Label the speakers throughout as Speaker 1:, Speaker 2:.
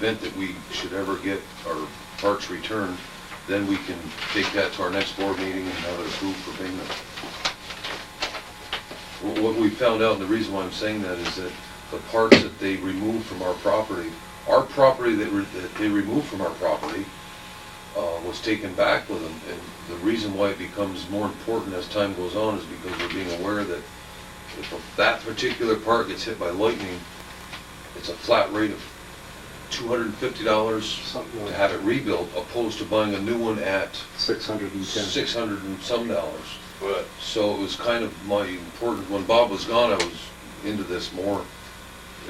Speaker 1: event that we should ever get our parks returned, then we can take that to our next board meeting and have it approved for payment. Wh- What we found out, and the reason why I'm saying that is that the parts that they removed from our property, our property that re- that they removed from our property uh, was taken back with them. And the reason why it becomes more important as time goes on is because we're being aware that if that particular part gets hit by lightning, it's a flat rate of two hundred and fifty dollars
Speaker 2: Something
Speaker 1: to
Speaker 2: like
Speaker 1: have it rebuilt, opposed to buying a new one at
Speaker 2: six hundred and ten.
Speaker 1: six hundred and some dollars.
Speaker 3: But
Speaker 1: So it was kind of my important, when Bob was gone, I was into this more,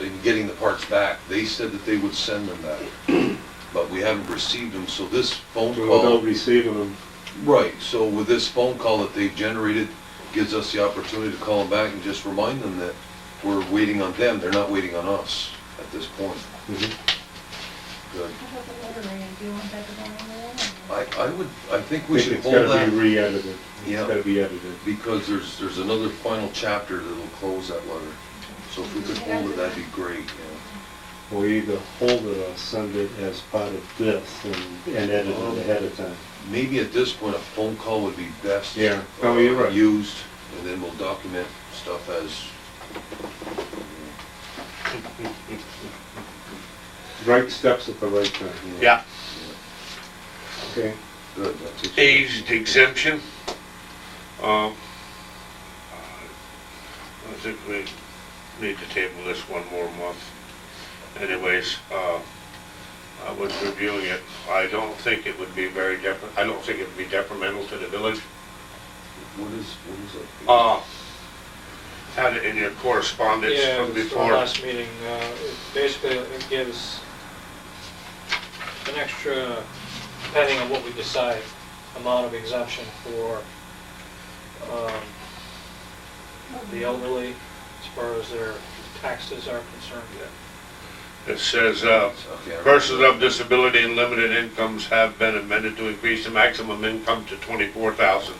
Speaker 1: in getting the parts back. They said that they would send them back, but we haven't received them, so this phone
Speaker 2: Without
Speaker 1: call.
Speaker 2: receiving them,
Speaker 1: Right, so with this phone call that they've generated, gives us the opportunity to call them back and just remind them that we're waiting on them, they're not waiting on us at this point.
Speaker 2: Mhm.
Speaker 1: Good.
Speaker 4: How about the lottery, do you want that to go on the wall?
Speaker 1: I, I would, I think we
Speaker 2: it's
Speaker 1: should
Speaker 2: it's
Speaker 1: hold
Speaker 2: gotta be
Speaker 1: that,
Speaker 2: re-edited.
Speaker 1: Yeah.
Speaker 2: It's gotta be edited.
Speaker 1: because there's, there's another final chapter that'll close that letter. So if we could hold it, that'd be great, yeah.
Speaker 2: Or either hold it or send it as part of this and, and edit it ahead of time.
Speaker 1: Maybe at this point, a phone call would be best. uh,
Speaker 2: Yeah. Oh, you're right.
Speaker 1: Used, and then we'll document stuff as,
Speaker 2: Right steps at the right time,
Speaker 1: you know,
Speaker 3: Yeah,
Speaker 2: okay?
Speaker 1: Good, that's it.
Speaker 3: aged exemption. Um, I think we need to table this one more month. Anyways, uh, I was reviewing it. I don't think it would be very depri, I don't think it would be detrimental to the village.
Speaker 1: What is, what is it?
Speaker 3: Uh, had it in your correspondence
Speaker 5: Ah. Yeah,
Speaker 3: from
Speaker 5: it was the
Speaker 3: before.
Speaker 5: last meeting, uh, it basically it gives an extra, depending on what we decide, amount of exemption for um, the elderly as far as their taxes are concerned.
Speaker 3: It says, uh,
Speaker 1: Okay, I remember.
Speaker 3: Persons of disability and limited incomes have been amended to increase the maximum income to twenty-four thousand.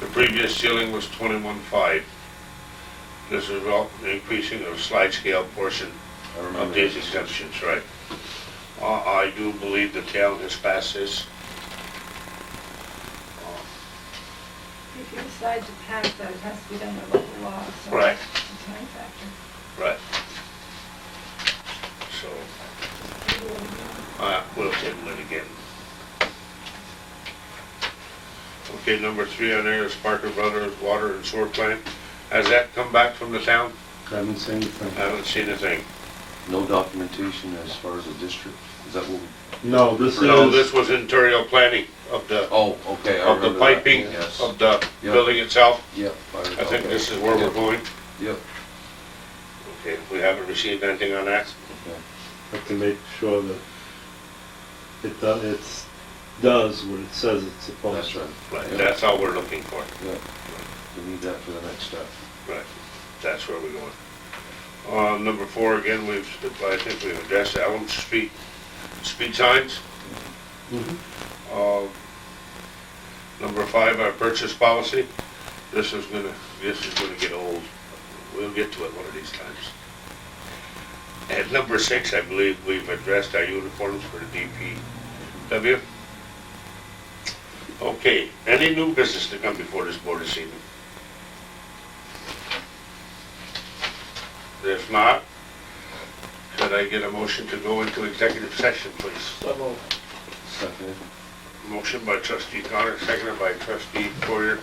Speaker 3: The previous ceiling was twenty-one five. This is all increasing the slide scale portion
Speaker 1: I
Speaker 3: of
Speaker 1: remember.
Speaker 3: these exemptions, right? Uh, I do believe the town has passed this.
Speaker 4: If you decide to pass that, it has to be done by local law, so.
Speaker 3: Right.
Speaker 4: It's a time factor.
Speaker 3: Right. So, uh, we'll table it again. Okay, number three on there is Parker Brothers Water and Sewer Plant. Has that come back from the town?
Speaker 2: Haven't seen the
Speaker 3: I
Speaker 1: Uh,
Speaker 2: thing.
Speaker 3: haven't seen a thing.
Speaker 1: No documentation as far as the district, is that what? we-
Speaker 2: No, this
Speaker 3: No,
Speaker 2: is,
Speaker 3: this was interior planning of the,
Speaker 1: Oh, okay, I
Speaker 3: of
Speaker 1: remember
Speaker 3: the
Speaker 1: that.
Speaker 3: piping,
Speaker 1: Yes,
Speaker 3: of the
Speaker 1: Yeah.
Speaker 3: building itself.
Speaker 1: yep.
Speaker 3: I think this is where we're going.
Speaker 1: Yep,
Speaker 3: Okay, we haven't received anything on that.
Speaker 2: have to make sure that it does, it's, does what it says it's supposed
Speaker 1: that's
Speaker 2: to.
Speaker 1: right,
Speaker 3: Right,
Speaker 1: Yeah.
Speaker 3: that's all we're looking for.
Speaker 1: yeah. We need that for the next step.
Speaker 3: Right, that's where we're going. Uh, number four, again, we've, I think we've addressed Elm Street, speed signs.
Speaker 2: Mhm.
Speaker 3: Uh, number five, our purchase policy. This is gonna, this is gonna get old. We'll get to it one of these times. At number six, I believe we've addressed our uniforms for the DPW. Okay, any new business to come before this board this evening? If not, could I get a motion to go into executive session, please?
Speaker 5: So moved.
Speaker 1: Second.
Speaker 3: Motion by trustee Connor, seconded by trustee Poirier.